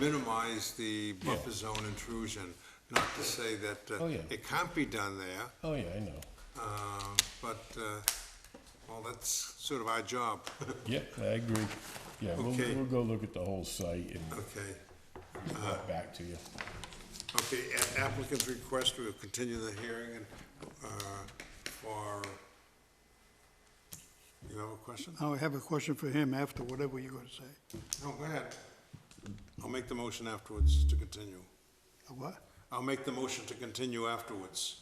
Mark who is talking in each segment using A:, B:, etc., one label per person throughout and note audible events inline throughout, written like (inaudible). A: minimize the buffer zone intrusion, not to say that uh,
B: Oh, yeah.
A: it can't be done there,
B: Oh, yeah, I know.
A: um, but, uh, well, that's sort of our job. (laughs)
B: Yeah, I agree. Yeah, we'll,
A: Okay.
B: we'll go look at the whole site and
A: Okay,
B: get back to you.
A: okay, a- applicant's request, we'll continue the hearing and, uh, for, you have a question?
C: I have a question for him after whatever you're gonna say.
A: No, go ahead. I'll make the motion afterwards to continue.
C: A What?
A: I'll make the motion to continue afterwards.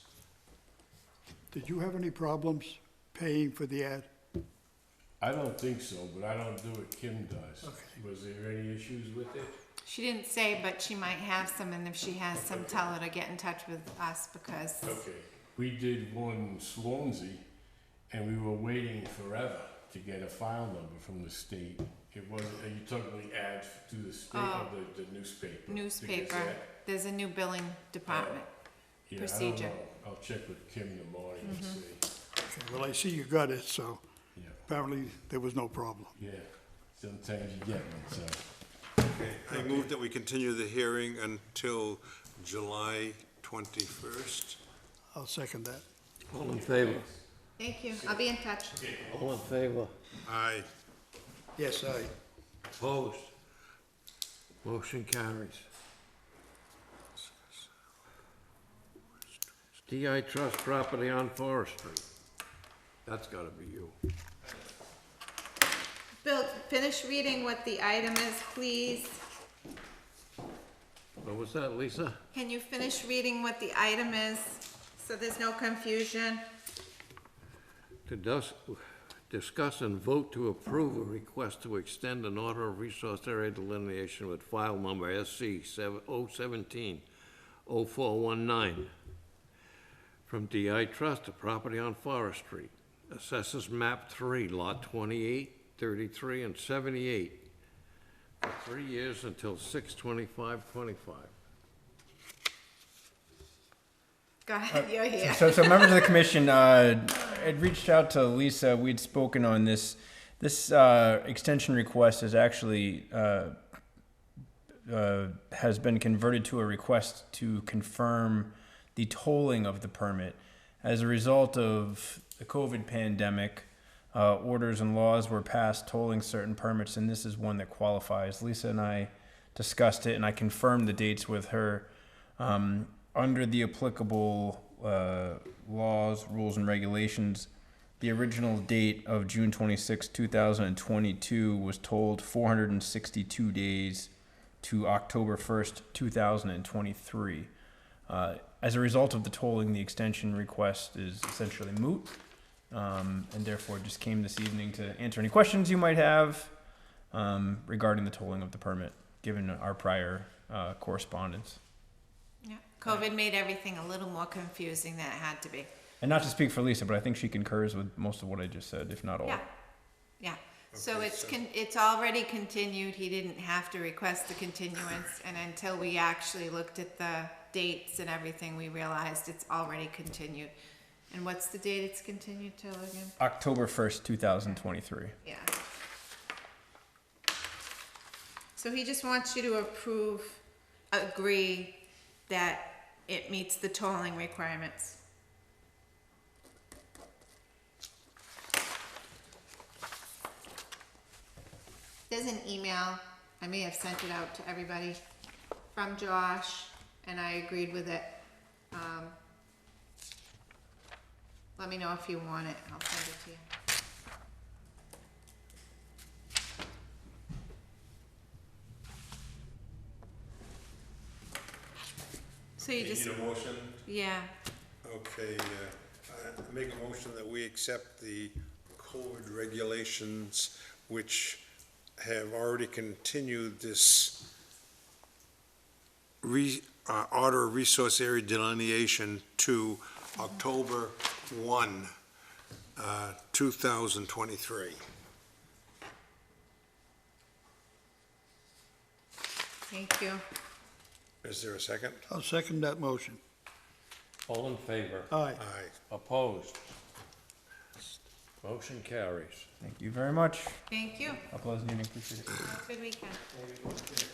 C: Did you have any problems paying for the ad?
B: I don't think so, but I don't do what Kim does.
C: Okay.
B: Was there any issues with it?
D: She didn't say, but she might have some, and if she has some, tell her to get in touch with us because
B: Okay, we did one Swansea, and we were waiting forever to get a file number from the state. It wasn't, and you took the ad to the state of the, the newspaper. the
D: Oh. newspaper,
B: Gazette.
D: there's a new billing department.
B: Yeah, I don't
D: procedure. Mm-hmm.
B: know. I'll check with Kim in the morning and see.
C: Okay, Well, I see you got it, so
B: Yeah,
C: apparently there was no problem.
B: yeah, sometimes you get one, so.
A: Okay, I move that we continue the hearing until July 21st.
C: I'll second that.
E: All in favor?
D: Thank you, I'll be in touch.
E: All in favor?
A: Aye.
C: Yes, I.
E: Opposed? Motion carries. DI Trust property on Forest Street. That's gotta be you.
D: Bill, finish reading what the item is, please.
E: What was that, Lisa?
D: Can you finish reading what the item is, so there's no confusion?
E: To dus- discuss and vote to approve a request to extend an order of resource area delineation with file number SC 017 0419 from DI Trust to property on Forest Street. Assesses map 3, lot 28, 33, and 78 for three years until 6/25/25.
D: Go ahead, you're here.
F: (laughs) So, so members of the commission uh, had reached out to Lisa. We'd spoken on this. This uh, extension request is actually uh, uh, has been converted to a request to confirm the tolling of the permit. As a result of the COVID pandemic, uh, orders and laws were passed tolling certain permits, and this is one that qualifies. Lisa and I discussed it, and I confirmed the dates with her. Um, under the applicable uh, laws, rules, and regulations, the original date of June 26, 2022 was told 462 days to October 1st, 2023. Uh, as a result of the tolling, the extension request is essentially moot, um, and therefore just came this evening to answer any questions you might have um, regarding the tolling of the permit, given our prior uh, correspondence.
D: Yeah. COVID made everything a little more confusing than it had to be.
F: And not to speak for Lisa, but I think she concurs with most of what I just said, if not all.
D: Yeah, yeah. So it's con, it's already continued, he didn't have to request the continuance, and until we actually looked at the dates and everything, we realized it's already continued. And what's the date it's continued till again?
F: October 1st, 2023.
D: Yeah. So he just wants you to approve, agree that it meets the tolling requirements. There's an email, I may have sent it out to everybody, from Josh, and I agreed with it. Um, Let me know if you want it, I'll send it to you. So you just,
A: a motion?
D: yeah,
A: Okay, uh, I make a motion that we accept the COVID regulations which have already continued this re, uh, order of resource area delineation to October 1, uh, 2023.
D: thank you.
A: Is there a second?
C: I'll second that motion.
E: All in favor?
C: Aye.
A: Aye.
E: Opposed? Motion carries.
F: Thank you very much.
D: Thank you.
F: A pleasant evening. Appreciate it.
D: Have a good weekend.